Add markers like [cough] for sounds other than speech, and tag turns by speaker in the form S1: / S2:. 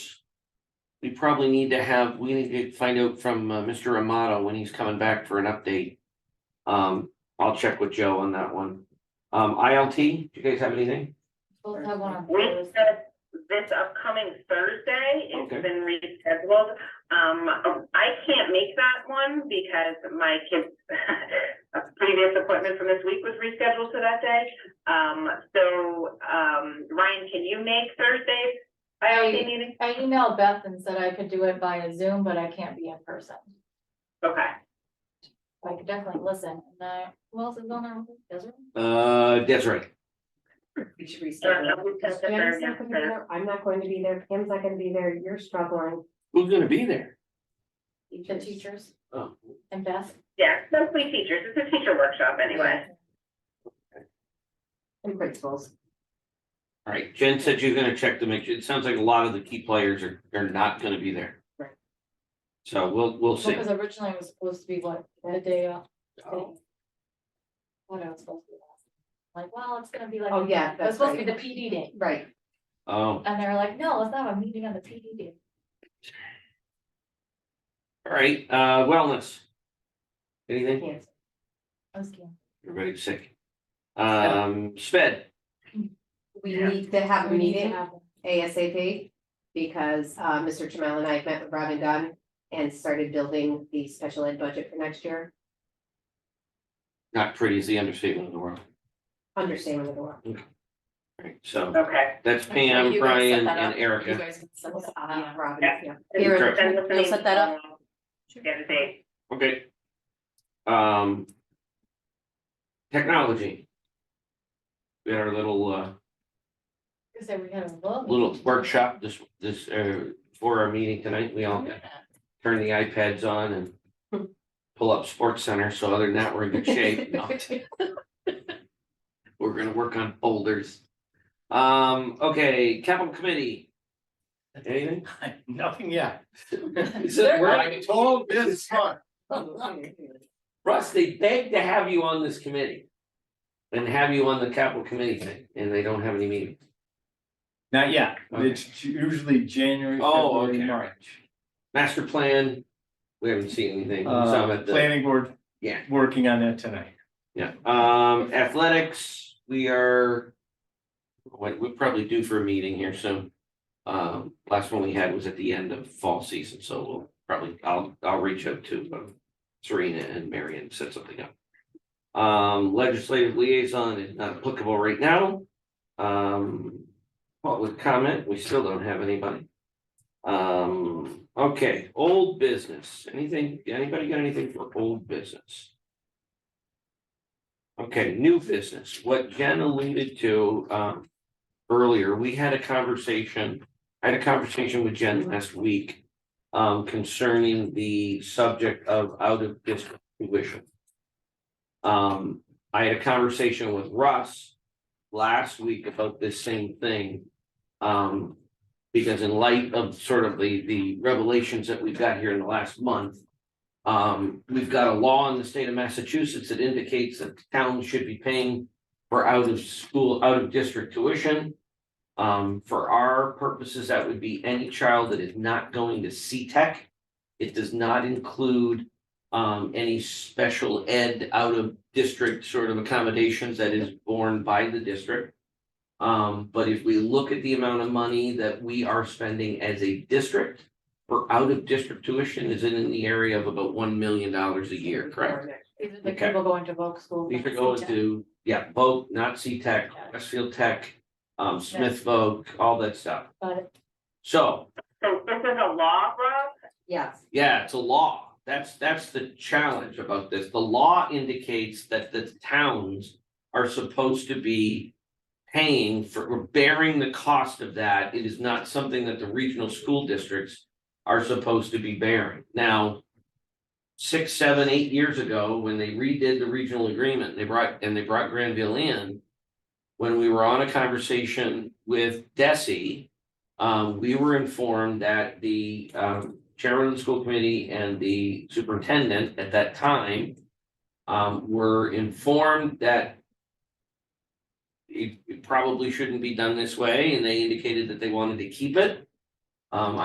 S1: we probably need to have, we need to find out from uh, Mr. Amato when he's coming back for an update. Um, I'll check with Joe on that one. Um, ILT, do you guys have anything?
S2: We'll have one on
S3: We
S2: Thursday.
S3: said this upcoming Thursday, it's
S1: Okay.
S3: been rescheduled. Um, I can't make that one because my kids, [laughs] a previous appointment from this week was rescheduled to that day. Um, so, um, Ryan, can you make Thursday's ILT
S2: I-
S3: meeting?
S2: I emailed Beth and said I could do it via Zoom, but I can't be in person.
S3: Okay,
S2: I could definitely listen. And, uh, who else is on there? Desiree?
S1: Uh, Desiree,
S4: We should
S3: so
S4: restart.
S3: we
S4: Pam's
S3: set the third,
S4: not
S3: yeah,
S4: gonna be there, I'm not going to be there, Pam's not gonna be there, you're struggling.
S1: who's gonna be there?
S2: The teachers
S1: Oh,
S2: and Beth?
S3: yeah, mostly teachers, it's a teacher workshop anyway.
S4: And principals.
S1: all right, Jen said you're gonna check to make sure, it sounds like a lot of the key players are, are not gonna be there.
S4: Right.
S1: So we'll, we'll see.
S2: Because originally it was supposed to be what, the day off?
S1: Oh,
S2: What else was supposed to be? Like, well, it's gonna be like.
S4: Oh,
S2: It
S4: yeah,
S2: was
S4: that's
S2: supposed to be
S4: right.
S2: the PD day.
S4: Right.
S1: Oh, all
S2: And they were like, no, let's have a meeting on the PD day.
S1: right, uh, wellness. Anything?
S4: Yes.
S2: I was kidding.
S1: Everybody's sick. Um, sped,
S4: We
S3: Yeah.
S4: need to have a
S2: We need to
S4: meeting
S2: have one.
S4: ASAP because uh Mr. Chamel and I have met with Robin Dunn and started building the special ed budget for next year,
S1: not pretty is the understatement of the world.
S4: understanding the world.
S1: Right, so
S3: Okay.
S1: that's Pam, Brian, and Erica.
S4: Uh, Robin,
S3: Yeah.
S4: yeah.
S1: Correct.
S3: Send us an
S4: You'll set that up?
S3: email, Get a date.
S1: Okay. Um. Technology. We had our little uh,
S2: Because they were gonna look.
S1: little
S2: [laughs]
S1: workshop this, this, uh, for our meeting tonight. We all turn the iPads on and pull up Sports Center. So other than that, we're in good shape. No. We're gonna work on folders. Um, okay, capital committee. Anything?
S5: [laughs] Nothing yet.
S1: Is it
S5: I [laughs] told this month,
S1: Russ, they begged to have you on this committee. And have you on the capital committee thing, and they don't have any meetings.
S5: not yet,
S1: Okay.
S5: it's usually January,
S1: Oh,
S5: February,
S1: okay.
S5: March.
S1: Master plan, we haven't seen anything, some
S5: Uh,
S1: at the,
S5: planning board.
S1: Yeah.
S5: Working on that tonight.
S1: yeah, um, athletics, we are. What, we're probably due for a meeting here soon. Um, last one we had was at the end of fall season, so we'll probably, I'll, I'll reach out to um, Serena and Marion, set something up. Um, legislative liaison is not applicable right now. Um, public comment, we still don't have anybody. Um, okay, old business, anything, anybody got anything for old business? Okay, new business, what Jen alluded to, um, earlier, we had a conversation, I had a conversation with Jen last week. Um, concerning the subject of out of district tuition. Um, I had a conversation with Russ last week about this same thing. Um, because in light of sort of the, the revelations that we've got here in the last month. Um, we've got a law in the state of Massachusetts that indicates that towns should be paying for out of school, out of district tuition. Um, for our purposes, that would be any child that is not going to CTEC. It does not include um, any special ed out of district sort of accommodations that is borne by the district. Um, but if we look at the amount of money that we are spending as a district for out of district tuition is in the area of about one million dollars a year, correct?
S2: These are the
S1: Okay.
S2: people going to Vogue school.
S1: These are going to, yeah, Voc, not Tech, Westfield Tech, um, Smith Voc, all that stuff.
S2: Got it.
S1: So,
S3: So this is a law, Rob?
S4: Yes.
S1: yeah, it's a law. That's, that's the challenge about this. The law indicates that the towns are supposed to be paying for, or bearing the cost of that. It is not something that the regional school districts are supposed to be bearing. Now, six, seven, eight years ago, when they redid the regional agreement, they brought, and they brought Granville in, when we were on a conversation with Desi, um, we were informed that the, um, chairman of the school committee and the superintendent at that time um, were informed that it it probably shouldn't be done this way, and they indicated that they wanted to keep it. Um,